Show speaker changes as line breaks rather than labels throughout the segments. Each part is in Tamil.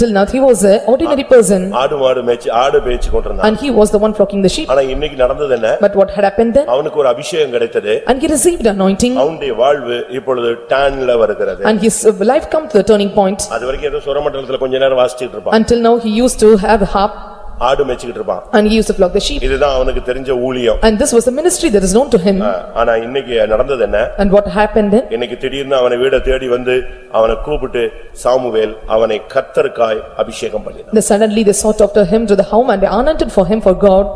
Till now, he was an ordinary person
ஆடு மாடு மேய்ச்சி ஆடு மேய்ச்சி கொண்டிருந்தான்
and he was the one flocking the sheep.
ஆனா இன்னைக்கு நடந்தது என்ன
But what had happened then?
அவனுக்கு ஒரு அபிஷேகம் கிடைத்தது
And he received anointing
அவனுடைய வாழ்வு இப்பொழுது டான்ல வருகிறது
and his uh, life come to the turning point.
அது வரைக்கும் ஏதோ சுரமண்டலத்துல கொஞ்ச நேரம் வாசிச்சுட்டு இருப்பான்
Until now, he used to have a harp
ஆடு மேய்ச்சிட்டு இருப்பான்
and he used to flock the sheep.
இதுதான் அவனுக்கு தெரிஞ்ச ஊழியம்
And this was a ministry that is known to him.
ஆ, ஆனா இன்னைக்கு நடந்தது என்ன
And what happened then?
இன்னைக்கு திடீர்னு அவனை வீட தேடி வந்து அவனை கூப்பிட்டு சாமுவேல் அவனை கத்தருக்காய் அபிஷேகம் பண்ணினான்
They Suddenly, they sought after him to the home and they anointed for him for God.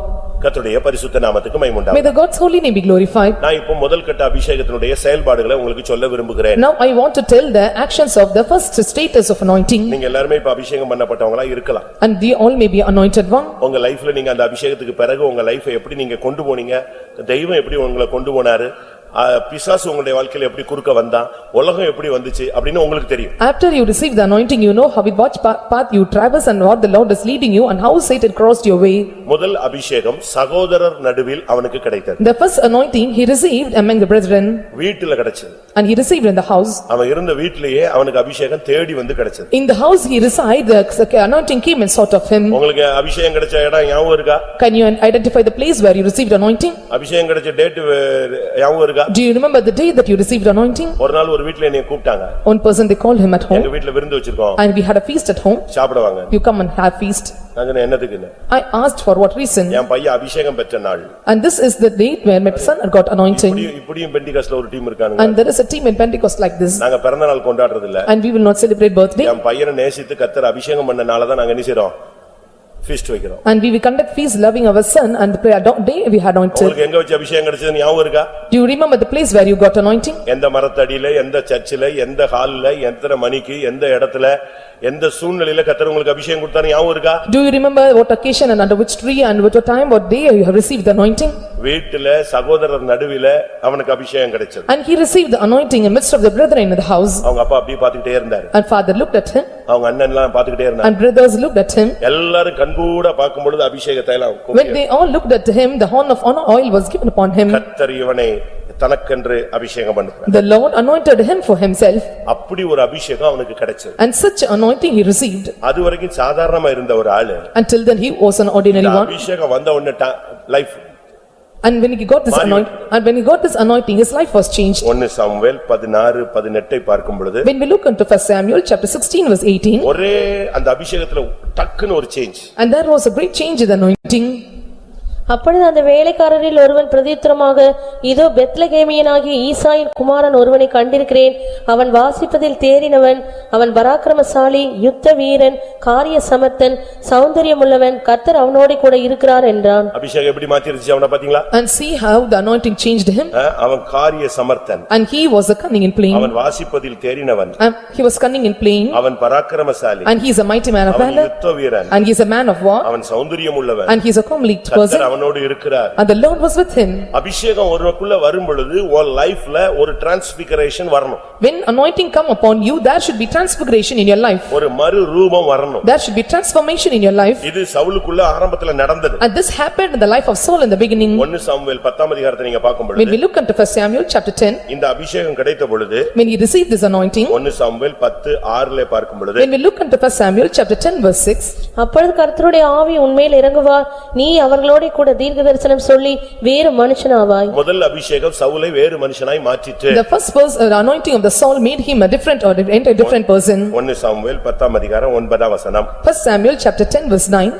கர்த்தருடைய பரிசுத்த நாமத்துக்கு மைமுண்டா
May the God's holy name be glorified.
நான் இப்போ முதல் கட்ட அபிஷேகத்தினுடைய செயல்பாடுகளை உங்களுக்கு சொல்ல விரும்புகிறேன்
Now, I want to tell the actions of the first status of anointing
நீங்க எல்லாருமே இப்ப அபிஷேகம் பண்ணப்பட்டவங்களா இருக்கலாம்
and they all may be anointed one.
உங்க லைஃப்ல நீங்க அந்த அபிஷேகத்துக்கு பிறகு உங்க லைஃப் எப்படி நீங்க கொண்டு போனீங்க தெய்வம் எப்படி உங்களை கொண்டு போனாரு ஆ, பிசாசு உங்களுடைய வாழ்க்கையில எப்படி குறுக்க வந்தான் உலகம் எப்படி வந்துச்சு அப்படின்னு உங்களுக்கு தெரியும்
After you receive the anointing, you know how with what pa- path you traverse and what the Lord is leading you and how Satan crossed your way.
முதல் அபிஷேகம் சகோதரர் நடுவில் அவனுக்கு கிடைத்தது
The first anointing he received among the brethren
வீட்டுல கிடைச்சது
and he received in the house.
அவன் இருந்த வீட்டிலேயே அவனுக்கு அபிஷேகம் தேடி வந்து கிடைச்சது
In the house he reside, the anointing came and sought of him.
உங்களுக்கு அபிஷேகம் கிடைச்ச இடம் ஞாபகம் இருக்கா
Can you identify the place where you received anointing?
அபிஷேகம் கிடைச்ச டேட் ஞாபகம் இருக்கா
Do you remember the day that you received anointing?
ஒரு நாள் ஒரு வீட்டுல என்னைய கூப்பிட்டாங்க
One person they called him at
எங்க
home
வீட்டுல விருந்து வச்சிருக்கோம்
and we had a feast at home.
சாப்பிடுவாங்க
You come and have feast.
நான் சொன்னேன் என்னதுக்குன்னு
I asked for what reason
என் பையன் அபிஷேகம் பெற்ற நாள்
and this is the date where my son got anointing.
இப்படியும் இப்படியும் பெண்டிகாஸ்ல ஒரு டீம் இருக்கானுங்க
And there is a team in Pentecost like this
நாங்க பிறந்த நாள் கொண்டாடுறது இல்ல
and we will not celebrate birthday.
என் பையனை நேசித்து கத்தர் அபிஷேகம் பண்ணனால தான் நாங்க என்ன செய்றோம் ஃபீஸ்ட் வைக்கிறோம்
And we will conduct feast loving our son and the prayer do- day we had anointed.
உங்களுக்கு எங்க வச்சு அபிஷேகம் கிடைச்சதுன்னு ஞாபகம் இருக்கா
Do you remember the place where you got anointing?
எந்த மரத்தடியில எந்த சர்ச்சில எந்த ஹால்ல எத்தனை மணிக்கு எந்த இடத்துல எந்த சூழ்நிலையில கத்தர் உங்களுக்கு அபிஷேகம் கொடுத்தாரு ஞாபகம் இருக்கா
Do you remember what occasion and under which tree and what time, what day you have received the anointing?
வீட்டுல சகோதரர் நடுவில அவனுக்கு அபிஷேகம் கிடைச்சது
And he received the anointing in midst of the brethren in the house.
அவங்க அப்பா அப்படியே பாத்துக்கிட்டே இருந்தாரு
And father looked at him
அவங்க அண்ணன் எல்லாம் பாத்துக்கிட்டே இருந்தாரு
and brothers looked at him.
எல்லாரும் கண்கூட பார்க்கும் பொழுது அபிஷேகத்தை எல்லாம்
When
கும்பிட்டு,
they all looked at him, the horn of honor oil was given upon him.
கர்த்தர் இவனை தனக்கென்று அபிஷேகம் பண்ணுறார்
The Lord anointed him for himself
அப்படி ஒரு அபிஷேகம் அவனுக்கு கிடைச்சது
and such anointing he received.
அது வரைக்கும் சாதாரணமா இருந்த ஒரு ஆளு
Until then he was an ordinary
இந்த
one.
அபிஷேகம் வந்த உடனே life
And when he got this
மாறி
anointing, and when he got this anointing, his life was changed.
ஒன்னு சாமுவேல் பதினாறு பதினெட்டை பார்க்கும் பொழுது
When we look into first Samuel, chapter sixteen, verse eighteen,
ஒரே அந்த அபிஷேகத்துல டக்குன்னு ஒரு change
and there was a great change in the anointing.
அப்பொழுது அந்த வேலைக்காரரில் ஒருவன் பிரதித்திரமாக இதோ பெத்லகேமியனாகிய ஈசாயின் குமாரன் ஒருவனை கண்டிருக்கிறேன் அவன் வாசிப்பதில் தேறினவன் அவன் பராக்கிரமசாலி யுத்த வீரன் காரிய சமர்த்தன் சௌந்தரியமுள்ளவன் கர்த்தர் அவனோடே கூட இருக்கிறார் என்றான்
அபிஷேகம் எப்படி மாத்திருச்சு அவன பாத்தீங்களா
And see how the anointing changed him,
அஹ், அவன் காரிய சமர்த்தன்
and he was a cunning in playing,
அவன் வாசிப்பதில் தேறினவன்
and he was cunning in playing,
அவன் பராக்கிரமசாலி
and he is a mighty man of
அவன்
valor,
யுத்த வீரன்
and he is a man of war,
அவன் சௌந்தரியம் உள்ளவன்
and he is a comely
கத்தர்
person,
அவனோடு இருக்கிறார்
and the Lord was with him.
அபிஷேகம் ஒருவனுக்குள்ள வரும் பொழுது உன் லைஃப்ல ஒரு டிரான்ஸ்பிகரேஷன் வரணும்
When anointing come upon you, there should be transfiguration in your life,
ஒரு மறு ரூபம் வரணும்
there should be transformation in your life,
இது சவுலுக்குள்ள ஆரம்பத்துல நடந்தது
and this happened in the life of Saul in the beginning.
ஒன்னு சாமுவேல் பத்தாம் அதிகாரத்தை நீங்க பார்க்கும்
When
பொழுது
we look into first Samuel, chapter ten,
இந்த அபிஷேகம் கிடைத்த பொழுது
when he received this anointing,
ஒன்னு சாமுவேல் பத்து ஆறுல பார்க்கும் பொழுது
When we look into first Samuel, chapter ten, verse six,
அப்பொழுது கர்த்தருடைய ஆவி உன்மேல் இறங்குவார் நீ அவர்களோடே கூட தீர்க்க தரிசனம் சொல்லி வேறு மனுஷனாவாய்
முதல் அபிஷேகம் சவுலை வேறு மனுஷனாய் மாற்றிட்டு
the first person, the anointing of the Saul made him a different or a different person.
ஒன்னு சாமுவேல் பத்தாம் அதிகாரம் ஒன்பதாம் வசனம்
First Samuel, chapter ten, verse nine,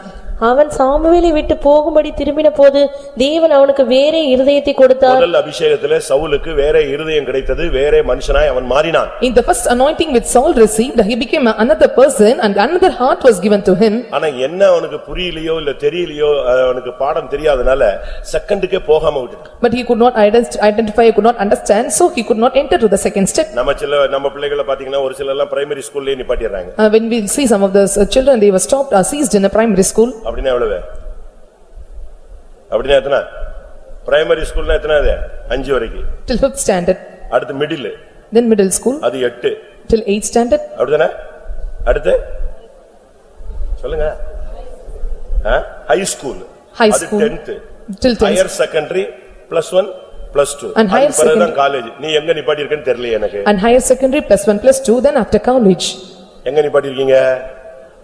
அவன் சாமுவேலை விட்டு போகும்படி திரும்பினபோது தேவன் அவனுக்கு வேறே இருதயத்தை கொடுத்தார்
முதல் அபிஷேகத்துல சவுலுக்கு வேற இருதயம் கிடைத்தது வேற மனுஷனாய் அவன் மாறினான்
in the first anointing which Saul received, he became another person and another heart was given to him.
ஆனா என்ன அவனுக்கு புரியலையோ இல்ல தெரியலையோ அஹ், அவனுக்கு பாடம் தெரியாதனால செகண்டுக்கே போகாம விட்டுட்டான்
But he could not ident- identify, he could not understand, so he could not enter to the second step.
நம்ம சில நம்ம பிள்ளைகளை பாத்தீங்கன்னா ஒரு சில எல்லாம் பிரைமரி ஸ்கூல்லயே நிப்பாட்டிடுறாங்க
Uh, When we see some of the uh, children, they were stopped or seized in a primary school.
அப்படின்னா எவ்வளவு? அப்படின்னா எத்தனை? பிரைமரி ஸ்கூல்னா எத்தனை அது? அஞ்சு வரைக்கும்.
Till fifth standard,
அடுத்து மிடில்.
then middle school,
அது எட்டு.
till eighth standard,
அப்படிதானே? அடுத்து? சொல்லுங்க. High school.
High
அது
school.
10th.
till tenth.
Higher secondary plus 1 plus 2.
And higher
பிறகுதான் காலேஜ். நீ எங்க நிப்பாட்டி இருக்கேன்னு தெரியல எனக்கு.
And higher secondary, plus one, plus two, then after college.
எங்க நிப்பாட்டி இருக்கீங்க?